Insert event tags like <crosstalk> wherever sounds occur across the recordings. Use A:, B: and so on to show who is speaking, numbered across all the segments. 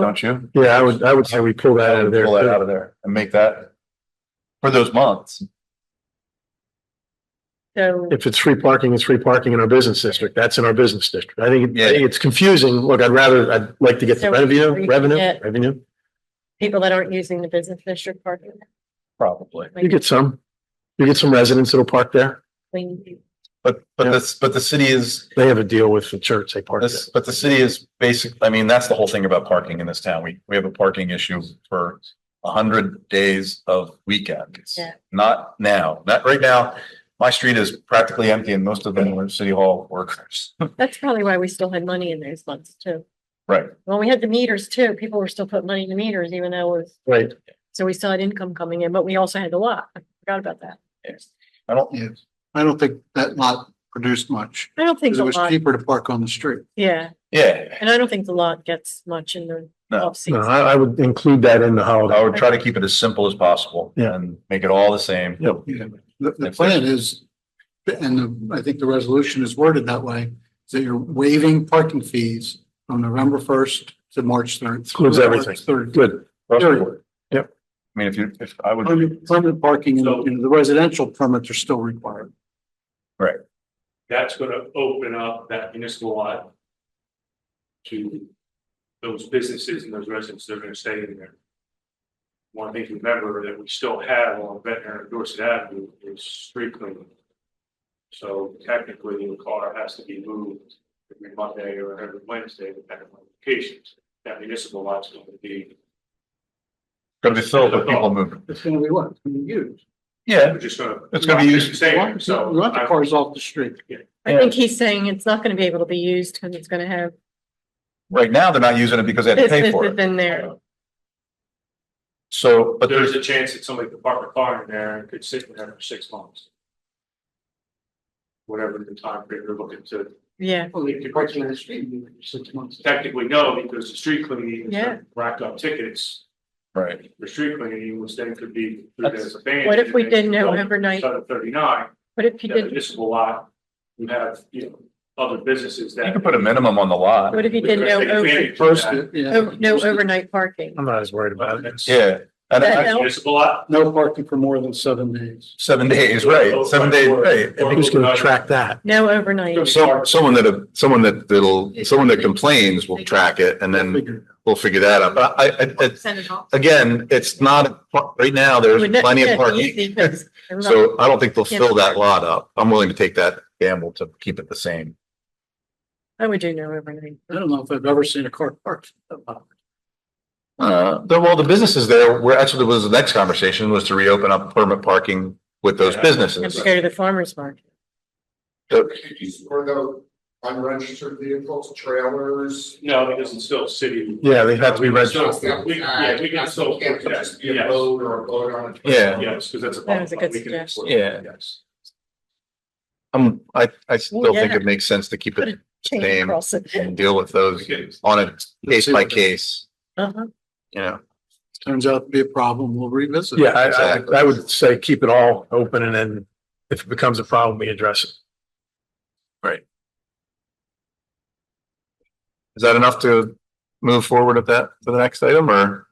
A: don't you?
B: Yeah, I would, I would say we pull that out of there.
A: Pull that out of there and make that for those months.
C: So,
B: If it's free parking, it's free parking in our business district. That's in our business district. I think, I think it's confusing. Look, I'd rather, I'd like to get the
C: So
B: revenue,
C: we
B: revenue,
C: get-
B: revenue.
C: people that aren't using the business district parking.
A: Probably.
B: You get some, you get some residents that'll park there.
C: clean.
A: But, but
B: Yeah.
A: this, but the city is,
B: They have a deal with the church. They park there.
A: this, but the city is basic, I mean, that's the whole thing about parking in this town. We, we have a parking issue for a hundred days of weekends.
C: Yeah.
A: Not now, not right now. My street is practically empty and most of them are city hall workers.
C: That's probably why we still had money in those months too.
A: Right.
C: When we had the meters too, people were still putting money in the meters even though it was,
B: Right.
C: so we still had income coming in, but we also had the lot. I forgot about that.
A: I don't,
D: Yeah, I don't think that lot produced much,
C: I don't think
D: because it
C: the
D: was
C: lot,
D: cheaper to park on the street.
C: yeah,
A: yeah,
C: and I don't think the lot gets much in the
A: No.
C: off
B: No,
C: season.
B: I, I would include that in the
A: I
B: holiday.
A: would try to keep it as simple as possible
B: Yeah.
A: and make it all the same.
B: Yep.
D: Yeah. The, the
A: If
D: plan is, and I think the resolution is worded that way, is that you're waiving parking fees from November first to March third.
B: Includes everything.
D: Third,
B: Good.
D: Period.
B: Yep.
A: I mean, if you, if I would,
D: permanent, permanent parking, and you know, the residential permits are still required.
E: that's gonna open up that municipal lot to those businesses and those residents that are gonna stay in there. One thing to remember that we still have on Ventnor and Dorset Avenue is street cleaning. So technically, the car has to be moved every Monday or every Wednesday, depending on locations. That municipal lot's gonna be,
A: gonna be filled with people moving.
D: It's gonna be what, it's gonna be used.
A: Yeah,
E: we're just gonna.
A: It's gonna be used-
D: We
E: Stay there,
D: want
E: so.
D: we want the
E: I-
D: cars off the street.
C: I think he's saying it's not gonna be able to be used because it's gonna have
A: right now they're not using it because they had to pay for
C: businesses
A: it.
C: in there.
A: So, but
E: But
A: there's,
E: there's a chance that somebody could park a car in there and could sit in there for six months. Whatever the time period you're looking to,
C: Yeah,
D: Well, if you're parking on the street, you six months.
E: technically no, because the street cleaning
C: Yeah.
E: is racked up tickets.
A: right,
E: The street cleaning was then could be. three days banned,
C: what if we
E: and then
C: did no overnight?
E: Instead of thirty-nine,
C: What if you
E: that
C: did,
E: municipal lot, you have, you know, other businesses that.
A: you could put a minimum on the lot.
C: what if you did no over,
D: First,
E: First,
D: yeah.
C: oh, no overnight parking?
B: I'm not as worried about it.
A: Yeah, and
C: That-
A: I-
C: that-
E: municipal lot.
D: No parking for more than seven days.
A: seven days, right, seven days, right.
E: Or-
B: Who's going to track that?
C: No overnight.
F: So, someone that, someone that, that'll, someone that complains will track it and then
D: Figure.
F: we'll figure that out. But I, I, it's-
C: Send it off.
F: again, it's not, right now, there's
C: Would that-
F: plenty
C: yeah,
F: of parking.
C: easy,
F: <laughs>
C: 'cause I'm not-
F: So I don't think they'll fill that lot up. I'm willing to take that gamble to keep it the same.
C: I would do no overnight.
D: I don't know if I've ever seen a car parked.
F: Uh, the- well, the businesses there, where actually was the next conversation was to reopen up permit parking with those
E: Yeah.
C: You Have
F: businesses.
C: to go to the farmer's market.
G: Or the unregistered vehicles, trailers.
E: No, because it's still city.
B: Yeah, they have to be registered.
E: So, we, yeah, we can still,
G: Can't
E: yes,
G: just be a
E: yes,
G: boat or a boat on a.
F: Yeah,
E: because that's a.
C: That was a good
E: we can-
C: suggestion.
F: Yeah.
E: Yes.
F: um, I, I still think
C: Yeah.
F: it makes sense to keep it
C: Chain
F: Same.
C: across it.
F: and deal with those
E: Okay.
F: on a case by case,
C: Uh-huh.
F: you know.
D: Turns out to be a problem, we'll revisit. it.
B: Yeah, I, I, would- I would say keep it all open and then if it becomes a problem, we address it.
F: Is that enough to move forward with that for the next item or?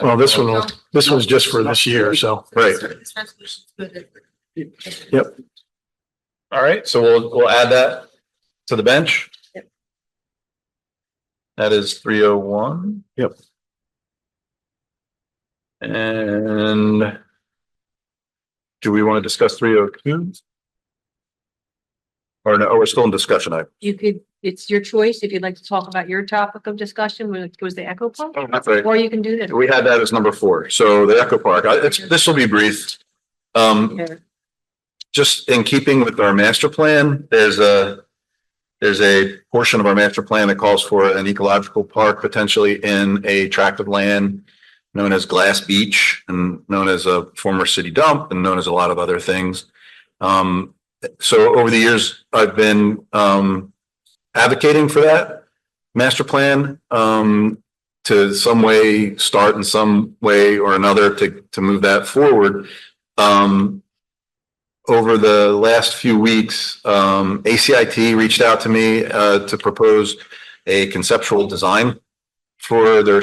B: Well, this one, will- this one's just for this year, so.
F: Right, all right, so we'll, we'll add that to the bench.
C: Yep.
F: That is three oh one.
B: Yep.
F: And do we want to discuss three oh two? Or no, oh, we're still in discussion. I,
H: you could, it's your choice if you'd like to talk about your topic of discussion, which was the Echo Park,
F: Oh, that's right.
H: or you can do that.
F: We had that as number four. So the Echo Park, I, it's, this will be brief. Um,
C: Yeah.
F: just in keeping with our master plan, there's a, there's a portion of our master plan that calls for an ecological park potentially in a tract of land known as Glass Beach and known as a former city dump and known as a lot of other things. Um, so over the years, I've been, um, advocating for that master plan, um, to some way, start in some way or another to, to move that forward. Um, over the last few weeks, um, ACIT reached out to me, uh, to propose a conceptual design for their